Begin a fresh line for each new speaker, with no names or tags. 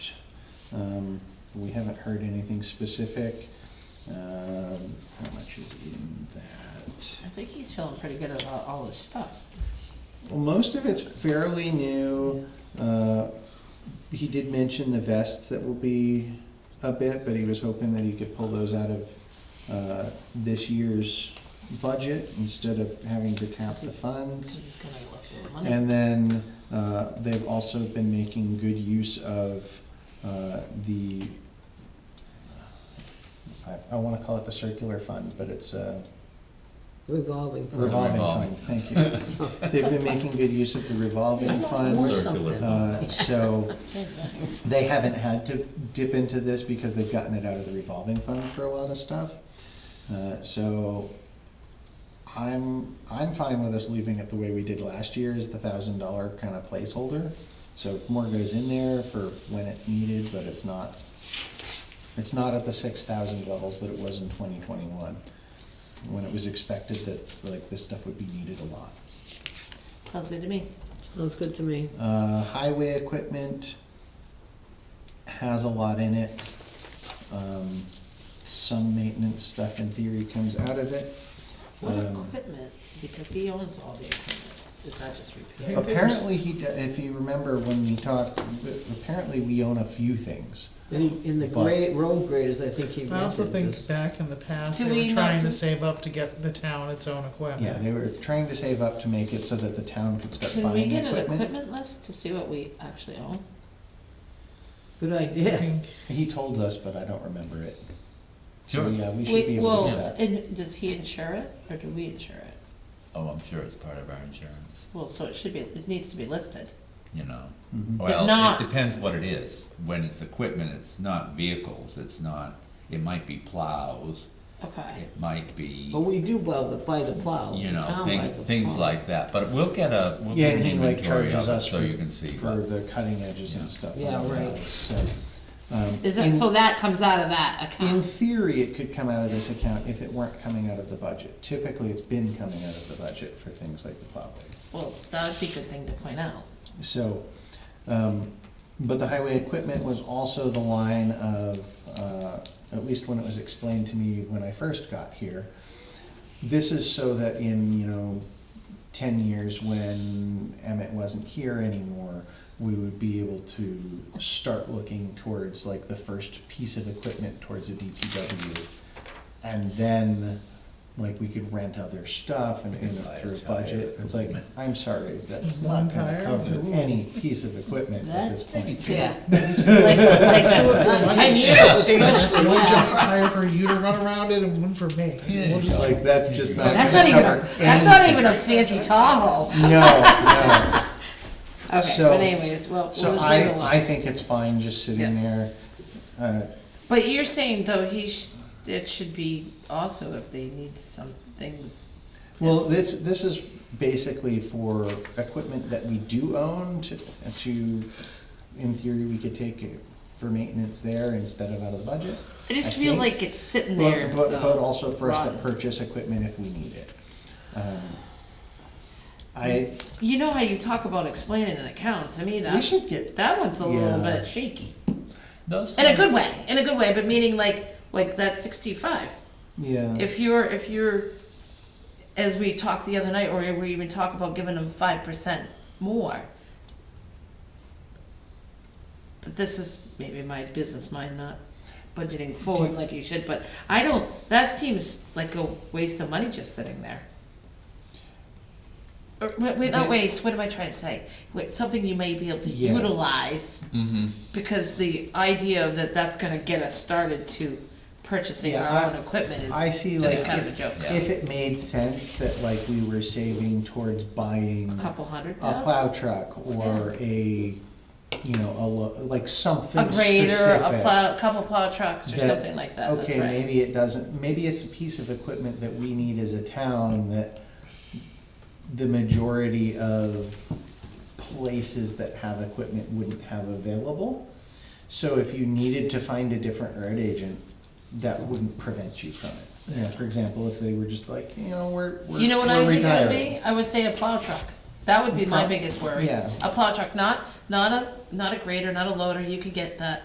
Um, we haven't heard anything specific. Um, how much is in that?
I think he's feeling pretty good about all his stuff.
Well, most of it's fairly new. Uh, He did mention the vests that will be a bit, but he was hoping that he could pull those out of uh, this year's budget instead of having to tap the
This
funds.
is gonna be leftover money.
And then uh, they've also been making good use of uh, the, I- I want to call it the circular fund, but it's a
Revolving fund.
revolving fund,
Revolving.
thank you. They've been making good use of the revolving fund.
Or
Circular.
something.
Uh, So
Thanks.
they haven't had to dip into this because they've gotten it out of the revolving fund for a lot of stuff. Uh, So I'm, I'm fine with us leaving it the way we did last year is the thousand dollar kind of placeholder. So more goes in there for when it's needed, but it's not, it's not at the six thousand levels that it was in twenty twenty-one. When it was expected that like this stuff would be needed a lot.
Sounds good to me.
Sounds good to me.
Uh, highway equipment has a lot in it. Um, some maintenance stuff in theory comes out of it.
What
Um,
equipment? Because he owns all the equipment. Is that just repair?
Apparently he, d- if you remember when we talked, apparently we own a few things.
And he- in the
But-
grade, road graders, I think he
I also
mentioned
think
this.
back in the past,
Do
they
we not
were trying
do-
to save up to get the town its own equipment.
Yeah, they were trying to save up to make it so that the town could start
Can we
buying
get an
equipment.
equipment list to see what we actually own?
Good
I
idea.
think
He told us, but I don't remember it. So,
Sure.
yeah, we should be
Wait,
able
well,
to do that.
and does he insure it or do we insure it?
Oh, I'm sure it's part of our insurance,
Well, so it should be, it needs to be listed.
you know.
Mhm.
Well,
not-
it depends what it is. When it's equipment, it's not vehicles, it's not, it might be plows,
Okay.
it might be,
But we do buy the, buy the plows,
you
the
know,
town
things,
buys the plows.
things like that. But we'll get a, we'll
Yeah,
get an
and he like
inventory
charges
of it
us for,
so you can see.
for
what-
the cutting edges
Yeah.
and stuff.
Yeah,
like that,
right.
So, um,
Is that,
in-
so that comes out of that
In
account?
theory, it could come out of this account if it weren't coming out of the budget. Typically, it's been coming out of the budget for things like the plow blades.
Well, that would be a good thing to point out.
So, um, but the highway equipment was also the line of, uh, at least when it was explained to me when I first got here. This is so that in, you know, ten years when Emmett wasn't here anymore, we would be able to start looking towards like the first piece of equipment towards a DPW. And then, like, we could rent other stuff and, and through a budget, it's like, I'm sorry, that's
One
not gonna
tire?
cover any piece of equipment at this point.
Yeah.
Like, like two or
Uh,
three.
Ten years, especially, yeah.
Hire for you to run around in and one for me.
Yeah.
It's like, that's just not.
That's not
gonna
even,
cover
a- that's not even a fancy Tahoe.
any- No, no.
Okay,
So-
but anyways, well, we'll
So
just leave
I,
it alone.
I think it's fine just sitting
Yeah.
there. Uh,
But you're saying though, he sh- it should be also if they need some things,
Well, this, this is basically for equipment that we do own to, to, in theory, we could take it for maintenance there instead of out of the budget.
I just
I
feel
think-
like it's sitting there.
But, but, but
though.
also for us to
Rotten.
purchase equipment if we need it. Um, I,
You know how you talk about explaining an account, to me
we
that,
should get,
that one's a little
Yeah.
bit shaky.
Those.
In a
kind of-
good way, in a good way, but meaning like, like that sixty-five.
yeah.
If you're, if you're, as we talked the other night, or we even talk about giving them five percent more. But this is maybe my business mind not budgeting forward like you should, but I don't, that seems like a waste of money just sitting there. Or, wait, wait, not waste, what am I trying to say? Wait, something you may be able to
Yeah. Mm-hmm.
utilize, because the idea of that that's gonna get us started to purchasing
Yeah,
our
I-
own equipment is
I see
just
like
kind of a
if-
joke.
Yeah.
If it made sense that like we were saving towards buying
A couple hundred
a
thousand,
plow truck or a, you know, a, lo- like something
a grader, a
specific.
plow, couple plow trucks or
that,
something like that, that's
Okay,
right.
maybe it doesn't, maybe it's a piece of equipment that we need as a town that the majority of places that have equipment wouldn't have available. So if you needed to find a different road agent, that wouldn't prevent you from it. You know, for example, if they were just like, you know, we're, we're
You know what
we're
I think it would
retiring.
be? I would say a plow truck. That would be my
Prob-
biggest worry.
yeah.
A plow truck, not, not a, not a grader, not a loader, you could get that